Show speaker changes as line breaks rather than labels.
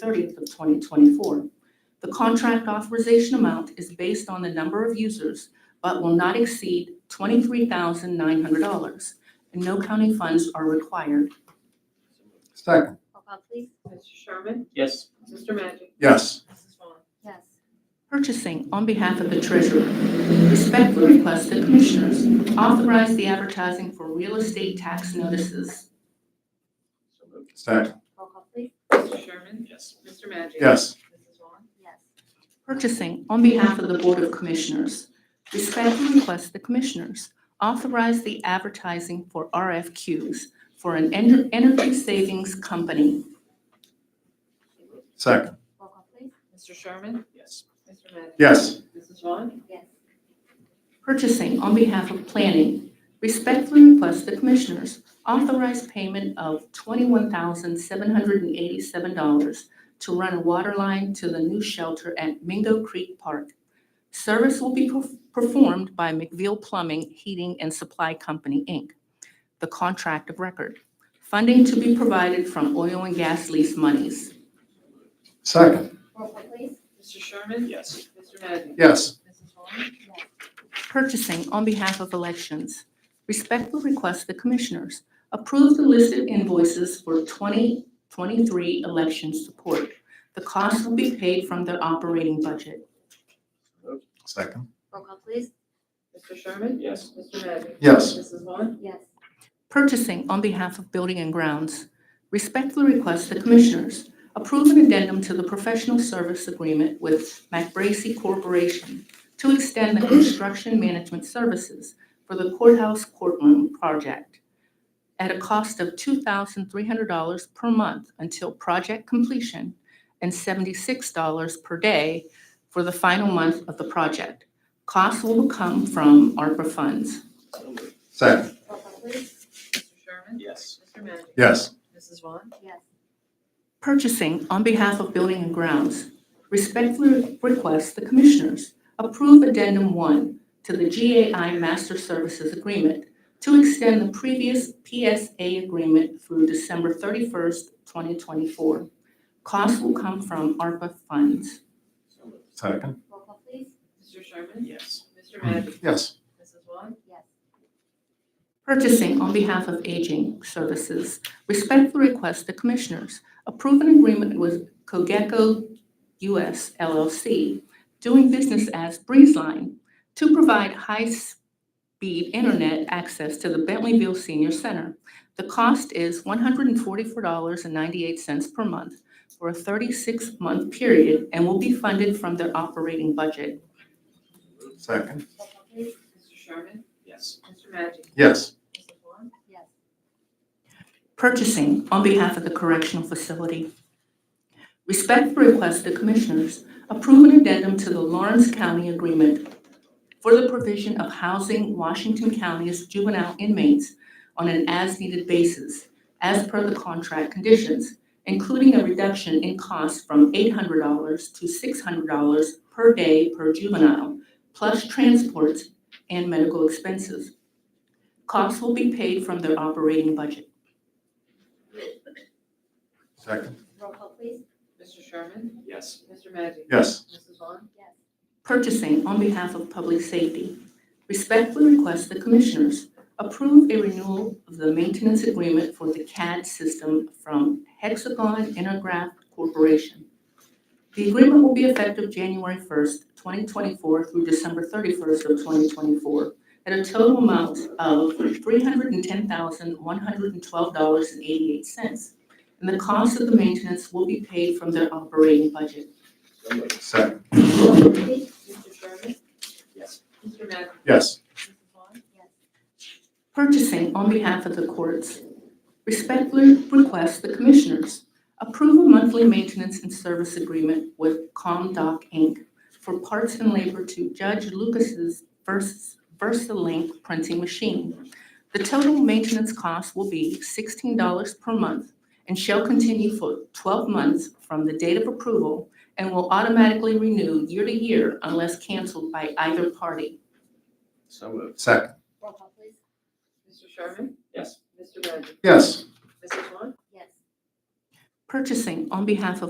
30th of 2024. The contract authorization amount is based on the number of users, but will not exceed $23,900, and no county funds are required.
Second.
Roll call, please.
Mr. Sherman?
yes,
Mr. Magic?
Yes.
Mrs. Vaughn?
Yes.
Purchasing on behalf of the treasurer. Respectfully request the commissioners authorize the advertising for real estate tax notices.
so moved,
Second.
Roll call, please.
Mr. Sherman?
yes,
Mr. Magic?
Yes.
Mrs. Vaughn?
Yes.
Purchasing on behalf of the Board of Commissioners. Respectfully request the commissioners authorize the advertising for RFQs for an ener- energy savings company.
Second.
Roll call, please.
Mr. Sherman?
yes,
Mr. Magic?
Yes.
Mrs. Vaughn?
Yes.
Purchasing on behalf of planning. Respectfully request the commissioners authorize payment of $21,787 to run a water line to the new shelter at Mingo Creek Park. Service will be perf- performed by McVeil Plumbing, Heating, and Supply Company, Inc., the contract of record. Funding to be provided from oil and gas lease monies.
Second.
Roll call, please.
Mr. Sherman?
yes,
Mr. Magic?
Yes.
Mrs. Vaughn?
Yes.
Purchasing on behalf of elections. Respectfully request the Commissioners approve the listed invoices for 2023 election support. The cost will be paid from their operating budget.
so moved,
Second.
Roll call, please.
Mr. Sherman?
yes,
Mr. Magic?
Yes.
Mrs. Vaughn?
Yes.
Purchasing on behalf of Building and Grounds. Respectfully request the Commissioners approve an addendum to the professional service agreement with MacBracy Corporation to extend the construction management services for the courthouse courtroom project at a cost of $2,300 per month until project completion and $76 per day for the final month of the project. Costs will come from ARPA funds.
so moved,
Second.
Roll call, please.
Mr. Sherman?
yes,
Mr. Magic?
Yes.
Mrs. Vaughn?
Yes.
Purchasing on behalf of Building and Grounds, respectfully request the Commissioners approve Addendum 1 to the GAI Master Services Agreement to extend the previous PSA agreement through December 31st, 2024. Costs will come from ARPA funds.
so moved,
Second.
Roll call, please.
Mr. Sherman?
yes,
Mr. Magic?
Yes.
Mrs. Vaughn?
Yes.
Purchasing on behalf of Aging Services, respectfully request the Commissioners approve an agreement with Cogeco US LLC, doing business as Breezeline, to provide high-speed internet access to the Bentleyville Senior Center. The cost is $144.98 per month for a 36-month period and will be funded from their operating budget.
so moved,
Second.
Roll call, please.
Mr. Sherman?
yes,
Mr. Magic?
Yes.
Mrs. Vaughn?
Yes.
Purchasing on behalf of the correctional facility. Respectfully request the Commissioners approve an addendum to the Lawrence County Agreement for the provision of housing Washington County's juvenile inmates on an as-needed basis as per the contract conditions, including a reduction in cost from $800 to $600 per day per juvenile, plus transport and medical expenses. Costs will be paid from their operating budget.
Second.
Roll call, please.
Mr. Sherman?
yes,
Mr. Magic?
Yes.
Mrs. Vaughn?
Yes.
Purchasing on behalf of public safety. Respectfully request the Commissioners approve a renewal of the maintenance agreement for the CAD system from Hexagon Intergraph Corporation. The agreement will be effective January 1st, 2024 through December 31st of 2024 at a total amount of $310,112.88. And the cost of the maintenance will be paid from their operating budget.
so moved,
Second.
Roll call, please.
Mr. Sherman?
yes,
Mr. Magic?
Yes.
Mrs. Vaughn?
Yes.
Purchasing on behalf of the courts. Respectfully request the Commissioners approve a monthly maintenance and service agreement with ComDoc Inc. for parts and labor to Judge Lucas's Vers- VersaLink printing machine. The total maintenance cost will be $16 per month and shall continue for 12 months from the date of approval and will automatically renew year to year unless canceled by either party.
so moved,
Second.
Roll call, please.
Mr. Sherman?
yes,
Mr. Magic?
Yes.
Mrs. Vaughn?
Yes.
Purchasing on behalf of